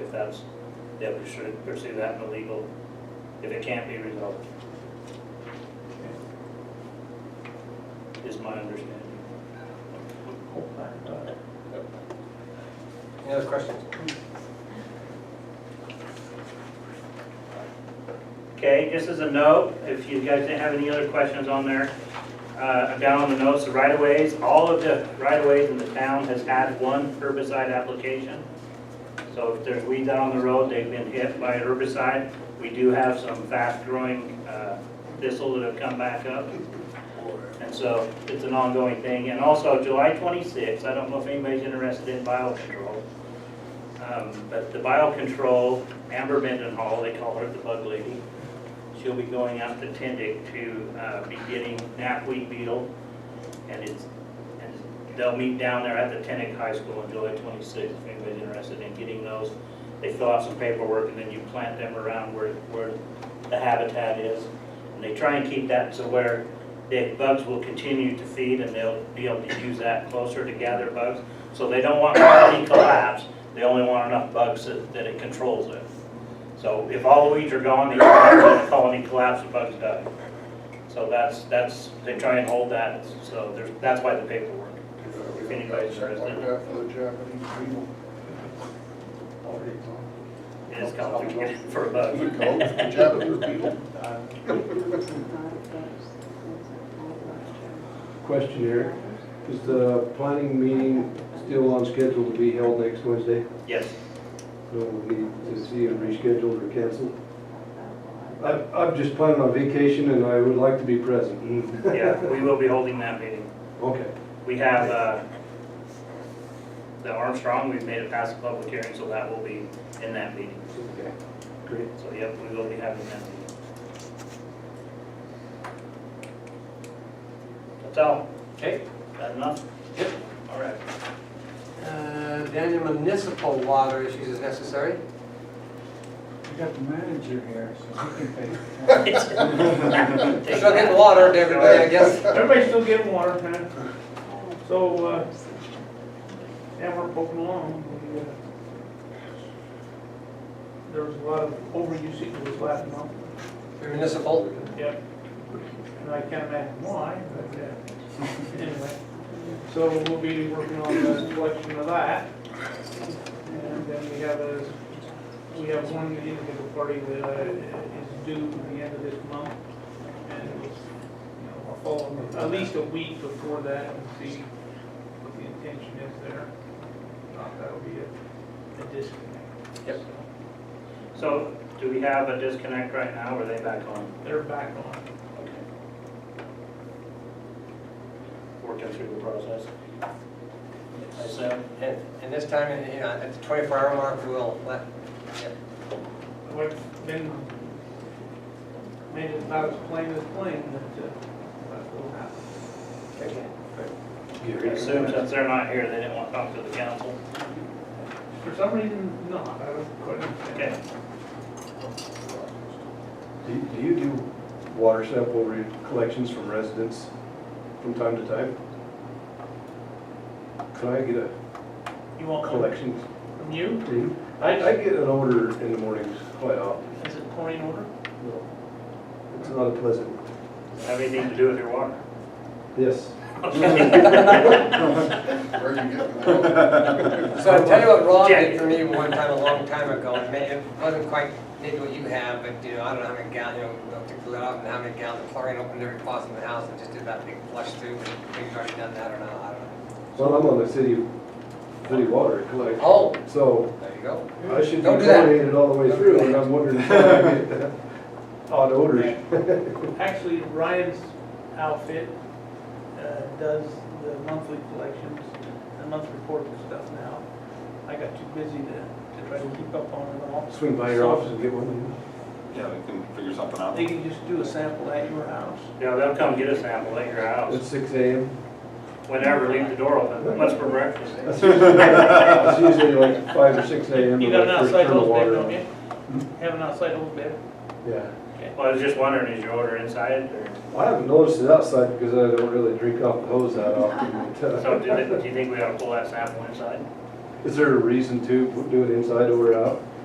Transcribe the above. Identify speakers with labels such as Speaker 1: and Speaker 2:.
Speaker 1: if that's, that we should pursue that in the legal, if it can't be resolved. Is my understanding.
Speaker 2: Any other questions?
Speaker 1: Okay, just as a note, if you guys didn't have any other questions on there, uh, down on the notes, the right-of-ways, all of the right-of-ways in the town has had one herbicide application. So if there's weeds out on the road, they've been hit by herbicide. We do have some fast-growing uh, thistle that have come back up. And so it's an ongoing thing. And also July 26th, I don't know if anybody's interested in biocontrol, um, but the biocontrol, Amber Mendenhall, they call her the bug lady, she'll be going out to Tendick to uh, be getting knapweed beetle. And it's, and they'll meet down there at the Tendick High School on July 26th, if anybody's interested in getting those. They fill out some paperwork and then you plant them around where, where the habitat is. And they try and keep that to where the bugs will continue to feed and they'll be able to use that closer to gather bugs. So they don't want colony collapse, they only want enough bugs that, that it controls it. So if all the weeds are gone, they don't let the colony collapse, the bugs die. So that's, that's, they try and hold that, so there's, that's why the paperwork. If anybody's
Speaker 3: Like
Speaker 1: interested,
Speaker 3: that for the Japanese people.
Speaker 1: it is complicated for a bug.
Speaker 3: The goat, the Japanese people.
Speaker 4: Question, Eric. Is the planning meeting still on schedule to be held next Wednesday?
Speaker 1: Yes,
Speaker 4: No, we need to see it rescheduled or canceled? I'm, I'm just planning on vacation and I would like to be present.
Speaker 1: yeah, we will be holding that meeting.
Speaker 4: Okay.
Speaker 1: We have, uh, the Armstrong, we've made it past the public hearing, so that will be in that meeting.
Speaker 4: Okay. Great.
Speaker 1: So, yep, we will be having that meeting. That's all,
Speaker 2: Okay,
Speaker 1: that enough?
Speaker 2: yep, all right. Uh, Daniel, municipal water issues is necessary?
Speaker 5: We got the manager here, so he can pay.
Speaker 2: Still getting water to everybody, I guess.
Speaker 6: Everybody's still getting water, man. So, uh, yeah, we're poking along. We, uh, There was a lot of overusage was last month,
Speaker 2: Municipal,
Speaker 6: yep. And I can't imagine why, but, uh, anyway. So we'll be working on the collection of that. And then we have a, we have one individual party that uh, is due at the end of this month. And it was you know, I'll follow them at least a week before that and see what the intention is there. Not that'll be a, a disconnect.
Speaker 2: Yep.
Speaker 6: So,
Speaker 1: So, do we have a disconnect right now, or are they back on?
Speaker 6: They're back on.
Speaker 1: Okay. Working through the process. I assume.
Speaker 2: and, and this time, you know, at the twenty-four hour mark, we'll let, yep.
Speaker 6: I've been, made it about as plain as plain that, uh, that will happen.
Speaker 2: okay, good.
Speaker 1: I assume since they're not here, they didn't want to talk to the council.
Speaker 6: For some reason, not, I don't quite understand.
Speaker 1: Okay,
Speaker 4: Do do you do water sample re- collections from residents from time to time? Could I get a
Speaker 6: You want one
Speaker 4: collection?
Speaker 6: from you?
Speaker 4: I, I get an order in the mornings quite often.
Speaker 6: Is it pouring order?
Speaker 4: It's not a pleasant.
Speaker 1: have anything to do with your water?
Speaker 4: Yes.
Speaker 3: Where are you getting that?
Speaker 2: So I'll tell you what Ron
Speaker 1: Jack.
Speaker 2: did for me one time, a long time ago, and may- it wasn't quite, maybe what you have, but, you know, I don't know how many gallons, you know, they'll take the lid off and how many gallons of chlorine opened every faucet in the house and just did that big flush through, and maybe you've already done that or not, I don't know.
Speaker 4: Well, I'm on the city, city water collection.
Speaker 2: Oh,
Speaker 4: So
Speaker 2: there you go.
Speaker 4: I should be
Speaker 2: Don't do that.
Speaker 4: chlorinated all the way
Speaker 2: Don't do
Speaker 4: through,
Speaker 2: that.
Speaker 4: and I'm wondering if I get odd odors.
Speaker 6: Actually, Ryan's outfit uh, does the monthly collections, the month report and stuff now. I got too busy to, to try to keep up on it all.
Speaker 4: Swing by your office and get one.
Speaker 7: Yeah, we can figure something out.
Speaker 6: They can just do a sample at your house.
Speaker 1: Yeah, they'll come get a sample at your
Speaker 4: It's
Speaker 1: house,
Speaker 4: six AM.
Speaker 1: whenever, leave the door open, what's for breakfast?
Speaker 4: That's usually that's usually like five or six AM.
Speaker 6: You
Speaker 4: when I
Speaker 6: got an
Speaker 4: first
Speaker 6: outside
Speaker 4: turn the
Speaker 6: hose bed,
Speaker 4: water
Speaker 6: don't
Speaker 4: on. Hmm?
Speaker 6: you? Have an outside hose bed?
Speaker 4: Yeah.
Speaker 1: Well, I was just wondering, is your order inside, or,
Speaker 4: I haven't noticed it outside because I don't really drink off the hose that often. but,
Speaker 1: so do
Speaker 4: uh,
Speaker 1: they- do you think we ought to pull that sample inside?
Speaker 4: Is there a reason to do it inside or out?